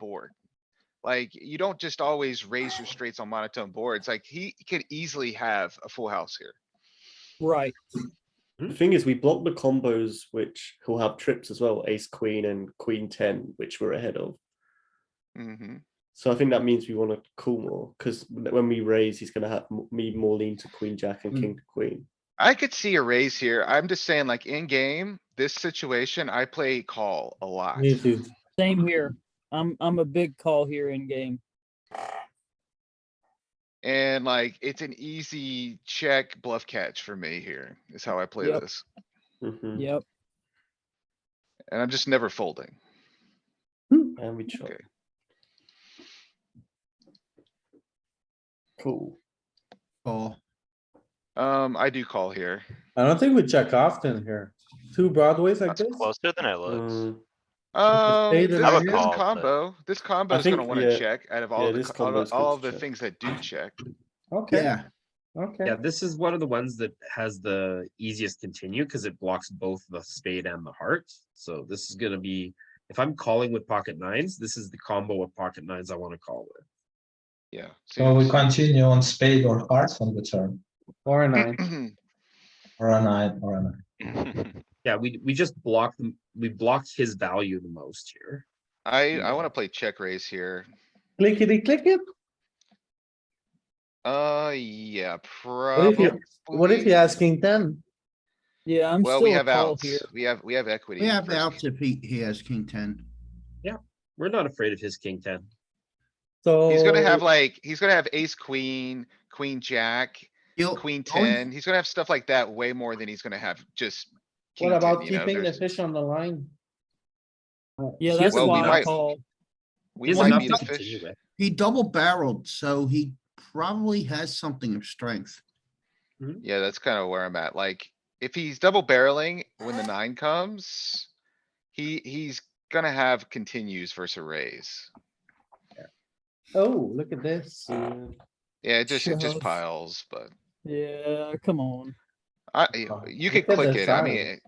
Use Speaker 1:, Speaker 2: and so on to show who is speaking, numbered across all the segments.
Speaker 1: board. Like, you don't just always raise your straights on monotone boards. Like, he could easily have a full house here.
Speaker 2: Right,
Speaker 3: The thing is, we block the combos which will have trips as well, ace queen and queen ten, which we're ahead of. Mm-hmm.
Speaker 1: hmm
Speaker 3: So I think that means we want to call more because when we raise, he's going to have m- me more lean to queen jack and
Speaker 2: Mm.
Speaker 3: king to queen.
Speaker 1: I could see a raise here. I'm just saying like in game, this situation, I play call a lot.
Speaker 4: Me too.
Speaker 2: same here. I'm, I'm a big call here in game.
Speaker 1: And like, it's an easy check bluff catch for me here is how I play
Speaker 2: Yep.
Speaker 1: this.
Speaker 3: Mhm.
Speaker 2: Yep,
Speaker 1: And I'm just never folding.
Speaker 3: And we chop.
Speaker 1: Okay.
Speaker 3: Cool.
Speaker 4: Call.
Speaker 1: Um, I do call here.
Speaker 4: I don't think we check often here. Two broadways like
Speaker 5: That's
Speaker 4: this?
Speaker 5: closer than it looks.
Speaker 3: Mm,
Speaker 1: Um,
Speaker 4: spade
Speaker 1: this
Speaker 4: and
Speaker 1: this
Speaker 4: I would
Speaker 5: call, but-
Speaker 1: combo, this combo is gonna
Speaker 3: think,
Speaker 1: wanna
Speaker 3: yeah,
Speaker 1: check out of
Speaker 3: yeah,
Speaker 1: all of the,
Speaker 3: this
Speaker 1: co- all
Speaker 3: combo is
Speaker 1: the,
Speaker 3: good
Speaker 1: all of
Speaker 3: to
Speaker 1: the
Speaker 3: check.
Speaker 1: things that do check.
Speaker 4: Okay,
Speaker 6: Yeah,
Speaker 4: okay.
Speaker 6: yeah, this is one of the ones that has the easiest continue because it blocks both the spade and the heart. So this is gonna be, if I'm calling with pocket nines, this is the combo of pocket nines I wanna call with.
Speaker 1: Yeah.
Speaker 7: So we
Speaker 1: seems-
Speaker 7: continue on spade or hearts on the turn,
Speaker 4: Four nine.
Speaker 7: or a nine, or a nine.
Speaker 6: Yeah, we, we just block, them- we block his value the most here.
Speaker 1: I,
Speaker 7: Hmm.
Speaker 1: I wanna play check raise here.
Speaker 4: Clickety click it.
Speaker 1: Uh, yeah,
Speaker 4: What if
Speaker 1: probably.
Speaker 4: you, what if you ask king ten?
Speaker 2: yeah, I'm
Speaker 1: Well, we
Speaker 2: still a
Speaker 1: have
Speaker 2: call
Speaker 1: outs.
Speaker 2: here.
Speaker 1: We have, we have equity.
Speaker 8: We have the
Speaker 1: versus-
Speaker 8: outs if he, he has king ten.
Speaker 6: We're not afraid of his king ten.
Speaker 4: So.
Speaker 1: He's gonna
Speaker 7: Oh.
Speaker 1: have like, he's gonna have ace, queen, queen, jack,
Speaker 8: He'll-
Speaker 1: queen
Speaker 8: only-
Speaker 1: ten. He's gonna have stuff like that way more than he's gonna have just. king
Speaker 4: What
Speaker 1: 10,
Speaker 4: about
Speaker 1: you know,
Speaker 4: keeping the
Speaker 1: there's-
Speaker 4: fish on the line?
Speaker 2: Yeah,
Speaker 6: Here's
Speaker 2: that's
Speaker 1: what we
Speaker 2: why I
Speaker 1: might-
Speaker 2: call.
Speaker 1: We
Speaker 6: He's
Speaker 1: might
Speaker 6: enough
Speaker 1: be
Speaker 6: to
Speaker 1: the fish.
Speaker 6: continue with.
Speaker 8: He double barreled, so he probably has something of strength.
Speaker 1: Yeah, that's kinda where I'm at. Like, if he's double barreling when the nine comes, he, he's gonna have continues versus a raise.
Speaker 4: Oh, look at this.
Speaker 3: Yeah.
Speaker 1: Yeah, it just, it just
Speaker 2: Shove.
Speaker 1: piles, but
Speaker 2: Yeah, come on.
Speaker 1: I, you- you could
Speaker 4: Look at
Speaker 1: click
Speaker 4: the
Speaker 1: it. I mean,
Speaker 4: size.
Speaker 1: it-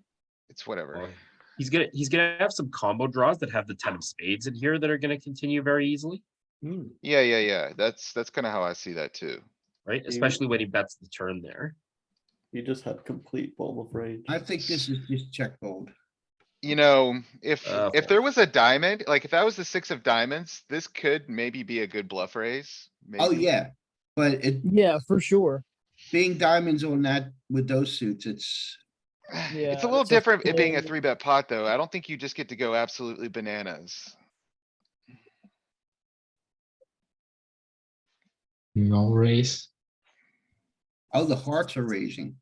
Speaker 1: it's whatever.
Speaker 6: He's gonna, he's gonna have some combo draws that have the ten of spades in here that are gonna continue very easily,
Speaker 4: Hmm.
Speaker 1: Yeah, yeah, yeah. That's, that's kinda how I see that too.
Speaker 6: right?
Speaker 3: Yeah.
Speaker 6: Especially when he bets the turn there.
Speaker 3: You just had complete bottom of range.
Speaker 8: I think this is just check fold.
Speaker 1: You know, if,
Speaker 6: Uh,
Speaker 1: if there was a diamond, like if that was the six of diamonds, this could maybe be a good bluff raise.
Speaker 8: Oh,
Speaker 1: maybe.
Speaker 8: yeah, but it,
Speaker 2: Yeah, for sure.
Speaker 8: being diamonds on that with those suits, it's,
Speaker 2: Yeah,
Speaker 1: It's a little
Speaker 2: it's a
Speaker 1: different it being a
Speaker 2: full-
Speaker 1: three bet pot, though. I don't think you just get to go absolutely bananas.
Speaker 9: No raise.
Speaker 8: oh, the hearts are raising.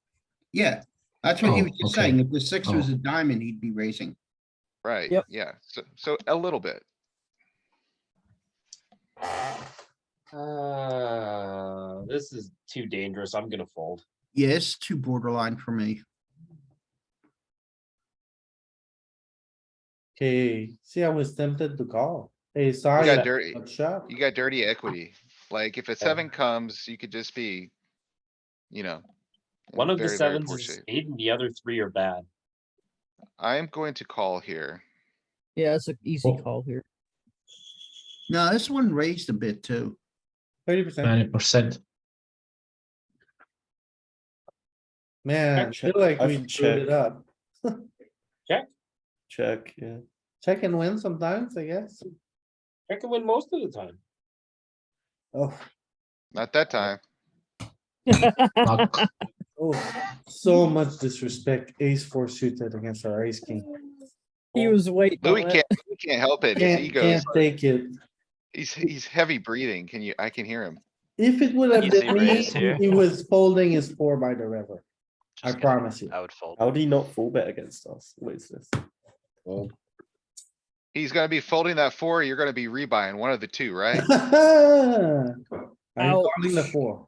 Speaker 8: Yeah, that's what he
Speaker 9: Oh,
Speaker 8: was just
Speaker 9: okay.
Speaker 8: saying. If the six was
Speaker 9: Oh.
Speaker 8: a diamond, he'd be raising.
Speaker 1: Right,
Speaker 2: Yep.
Speaker 1: yeah, so, so a little bit.
Speaker 6: Uh, this is too dangerous. I'm gonna fold.
Speaker 8: Yes, too borderline for me.
Speaker 4: Okay, see, I was tempted to call. Hey,
Speaker 1: You
Speaker 4: sorry.
Speaker 1: got
Speaker 4: that-
Speaker 1: dirty,
Speaker 4: that shot.
Speaker 1: you got dirty equity. Like if a seven comes, you could just be, you know. in
Speaker 6: One of the
Speaker 1: very, very
Speaker 6: sevens
Speaker 1: poor
Speaker 6: is a
Speaker 1: shape.
Speaker 6: spade and the other three are bad.
Speaker 1: I am going to call here.
Speaker 2: Yeah, it's an easy call here.
Speaker 8: No, this one raised a bit too.
Speaker 4: Thirty percent.
Speaker 9: Ninety percent.
Speaker 4: Man, I feel
Speaker 3: Check.
Speaker 4: like
Speaker 3: I
Speaker 4: we
Speaker 3: think
Speaker 4: screwed
Speaker 3: check.
Speaker 4: it up.
Speaker 3: Check. Yeah.
Speaker 4: Check and win sometimes, I guess.
Speaker 6: I can win most of the time.
Speaker 4: Oh,
Speaker 1: Not that time.
Speaker 4: oh, so much disrespect. Ace four suited against our ace king.
Speaker 2: He was waiting.
Speaker 1: Louis
Speaker 2: on it.
Speaker 1: can't, Louis can't help it. His
Speaker 4: Can't,
Speaker 1: ego's,
Speaker 4: can't take it.
Speaker 1: he's, he's heavy breathing. Can you, I can hear him.
Speaker 4: If it would have
Speaker 5: Easy
Speaker 4: been me,
Speaker 5: raise here.
Speaker 4: he was folding his four by the river. I
Speaker 5: Just kidding.
Speaker 4: promise you.
Speaker 5: I would fold.
Speaker 3: How do you not fall bet against us? What is this?
Speaker 1: He's gonna be folding that four. You're gonna be rebuying one of the two, right?
Speaker 4: I'm
Speaker 2: Ouch.
Speaker 4: calling the four.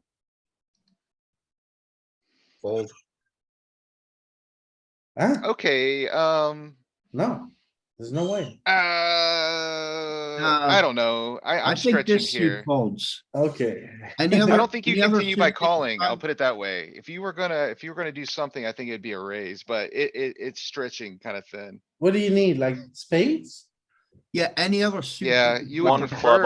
Speaker 6: Fold.
Speaker 4: Huh?
Speaker 1: Okay, um,
Speaker 4: Ah, No, there's no way.
Speaker 1: uh, I don't know. I,
Speaker 8: I
Speaker 1: I'm
Speaker 8: think
Speaker 1: stretching
Speaker 8: this
Speaker 1: here.
Speaker 8: suit folds.
Speaker 4: Okay.
Speaker 8: And the
Speaker 1: I
Speaker 8: other-
Speaker 1: don't think you
Speaker 8: the other
Speaker 1: continue by
Speaker 8: suit is
Speaker 1: calling. I'll
Speaker 8: fine.
Speaker 1: put it that way. If you were gonna, if you were gonna do something, I think it'd be a raise, but it, it, it's stretching kind of thin.
Speaker 4: What do you need? Like spades?
Speaker 10: Yeah, any other suit.
Speaker 1: Yeah,
Speaker 10: would be
Speaker 1: you would
Speaker 8: One club
Speaker 1: prefer